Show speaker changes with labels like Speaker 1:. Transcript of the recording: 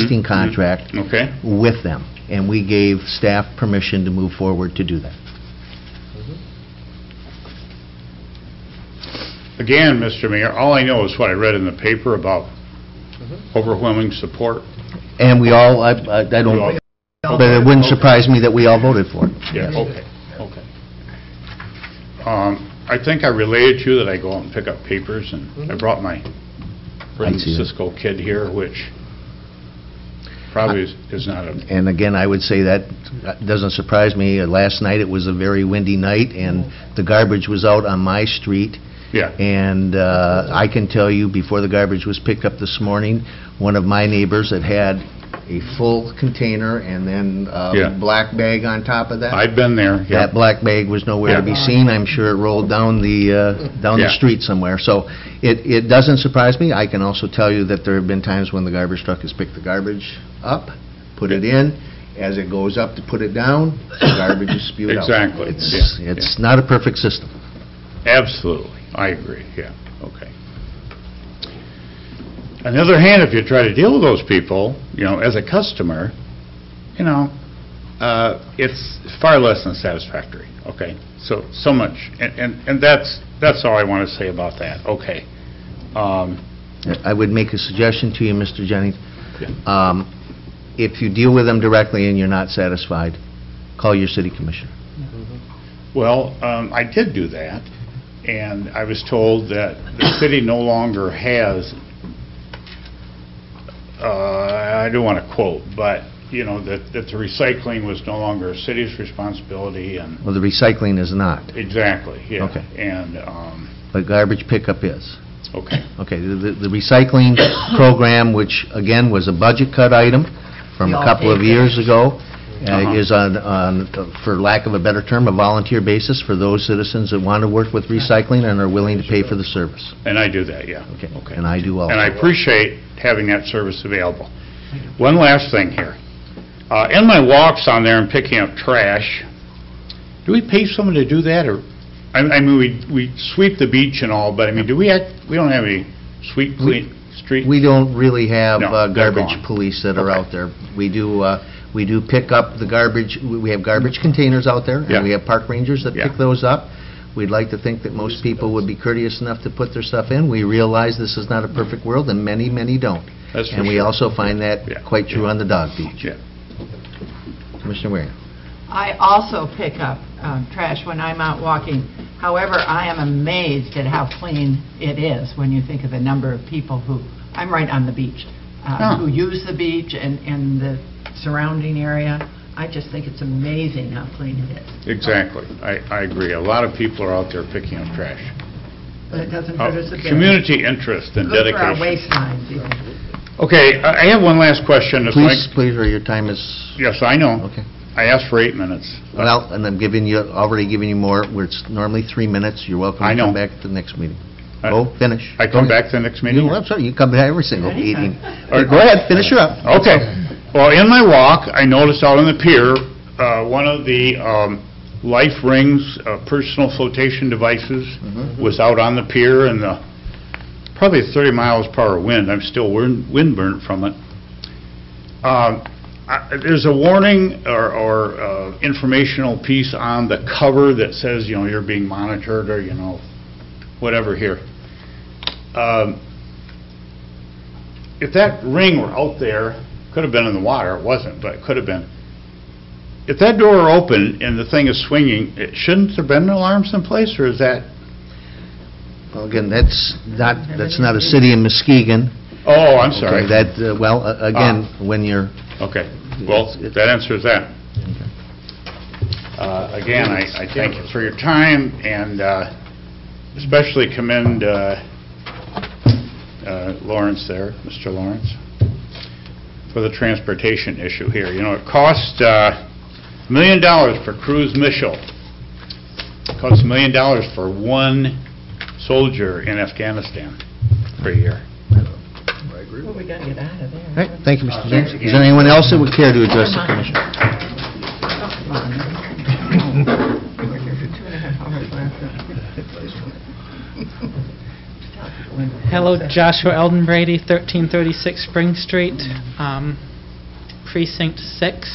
Speaker 1: existing contract
Speaker 2: Okay.
Speaker 1: with them, and we gave staff permission to move forward to do that.
Speaker 2: Again, Mr. Mayor, all I know is what I read in the paper about overwhelming support.
Speaker 1: And we all, I I- I don't, but it wouldn't surprise me that we all voted for it.
Speaker 2: Yeah, okay, okay. Um, I think I related to you that I go out and pick up papers,
Speaker 1: Mm-hmm.
Speaker 2: and I brought my friend
Speaker 1: see that.
Speaker 2: Cisco kid here, which probably is is not a,
Speaker 1: And again, I would say that doesn't surprise me. Uh, Last night, it was a very windy night, and the garbage was out on my street,
Speaker 2: yeah.
Speaker 1: and uh, I can tell you, before the garbage was picked up this morning, one of my neighbors had had a full container and then
Speaker 2: Yeah.
Speaker 1: a black bag on top of that.
Speaker 2: I've been there, yeah.
Speaker 1: That black bag was nowhere to be
Speaker 2: Yeah.
Speaker 1: seen. I'm sure it rolled down the, uh, down the
Speaker 2: Yeah.
Speaker 1: street somewhere. So it, it doesn't surprise me. I can also tell you that there have been times when the garbage truck has picked the garbage up, put it in, as it goes up to put it down, the garbage is spewed out.
Speaker 2: Exactly.
Speaker 1: It's,
Speaker 2: Yeah,
Speaker 1: it's not a perfect system.
Speaker 2: Absolutely, I agree, yeah, okay. On the other hand, if you try to deal with those people, you know, as a customer, you know, uh, it's far less than satisfactory, okay? So, so much, and, and and that's, that's all I want to say about that, okay? Um,
Speaker 1: I would make a suggestion to you, Mr. Jennings.
Speaker 2: Yeah.
Speaker 1: Um, If you deal with them directly and you're not satisfied, call your city commissioner.
Speaker 2: Well, um, I did do that, and I was told that the city no longer has, uh, I don't want to quote, but, you know, that, that the recycling was no longer a city's responsibility, and,
Speaker 1: Well, the recycling is not,
Speaker 2: exactly, yeah.
Speaker 1: Okay.
Speaker 2: And, um,
Speaker 1: but garbage pickup is.
Speaker 2: okay,
Speaker 1: Okay, the the recycling program, which again was a budget cut item from a couple of years ago, uh,
Speaker 2: Uh-huh.
Speaker 1: is on, on, for lack of a better term, a volunteer basis for those citizens that want to work with recycling and are willing to pay for the service.
Speaker 2: and I do that, yeah.
Speaker 1: Okay,
Speaker 2: Okay.
Speaker 1: and I do all.
Speaker 2: And I appreciate having that service available. One last thing here. Uh, In my walks on there and picking up trash, do we pay someone to do that, or, I I mean, we we sweep the beach and all, but I mean, do we, act- we don't have any sweep clean street?
Speaker 1: We don't really have
Speaker 2: No,
Speaker 1: uh,
Speaker 2: they're
Speaker 1: garbage
Speaker 2: gone.
Speaker 1: police that are
Speaker 2: Okay.
Speaker 1: out there. We do, uh, we do pick up the garbage, we we have garbage containers out there,
Speaker 2: Yeah.
Speaker 1: and we have park rangers that
Speaker 2: Yeah.
Speaker 1: pick those up. We'd like to think that most people would be courteous enough to put their stuff in. We realize this is not a perfect world, and many, many don't.
Speaker 2: That's for
Speaker 1: And we
Speaker 2: sure.
Speaker 1: also find
Speaker 2: Yeah.
Speaker 1: that quite true on the dog beach.
Speaker 2: Yeah.
Speaker 1: Commissioner Waring?
Speaker 3: I also pick up um, trash when I'm out walking. However, I am amazed at how clean it is when you think of the number of people who, I'm right on the beach, uh,
Speaker 2: Huh.
Speaker 3: who use the beach and, and the surrounding area. I just think it's amazing how clean it is.
Speaker 2: Exactly. I I agree. A lot of people are out there picking up trash.
Speaker 3: But it doesn't
Speaker 2: Uh,
Speaker 3: hurt us a bit.
Speaker 2: Community interest and
Speaker 3: Good for our
Speaker 2: dedication.
Speaker 3: waistlines even.
Speaker 2: Okay, I I have one last question. It's like-
Speaker 1: Please, please, or your time is,
Speaker 2: Yes, I know.
Speaker 1: okay.
Speaker 2: I asked for eight minutes.
Speaker 1: Well, and I'm giving you, already giving you more, where it's normally three minutes. You're welcome
Speaker 2: I
Speaker 1: to
Speaker 2: know.
Speaker 1: come back at the next meeting.
Speaker 2: I-
Speaker 1: Go, finish.
Speaker 2: I
Speaker 1: Go
Speaker 2: come
Speaker 1: ahead.
Speaker 2: back to the next meeting?
Speaker 1: You, I'm sorry, you come to every single meeting.
Speaker 2: right.
Speaker 1: Go ahead, finish her up.
Speaker 2: Okay. Well, in my walk, I noticed out on the pier, uh, one of the um, life rings, uh, personal flotation devices
Speaker 1: Mm-hmm.
Speaker 2: was out on the pier and the, probably 30 miles per hour wind. I'm still wind wind burnt from it. Um, I- There's a warning or- or uh, informational piece on the cover that says, you know, you're being monitored or, you know, whatever here. Um, if that ring were out there, could have been in the water, it wasn't, but it could have been. If that door were open and the thing is swinging, it- shouldn't there been alarms in place, or is that,
Speaker 1: Well, Again, that's not, that's not a city in Muskegon.
Speaker 2: oh, I'm
Speaker 1: Okay,
Speaker 2: sorry.
Speaker 1: That, uh, well, a- again, when you're,
Speaker 2: Okay, well, that answers that. Uh, Again, I I thank you for your time, and uh, especially commend uh, uh, Lawrence there, Mr. Lawrence, for the transportation issue here. You know, it cost uh, a million dollars for Cruz Mitchell, cost a million dollars for one soldier in Afghanistan per year.
Speaker 3: Well, we gotta get out of there.
Speaker 1: all right, thank you, Mr. James. Is there anyone else that would care to address the commission?
Speaker 3: Come on. We're here for two and a half hours left.
Speaker 4: Hello, Joshua Eldon Brady, 1336 Spring Street. Um, Precinct 6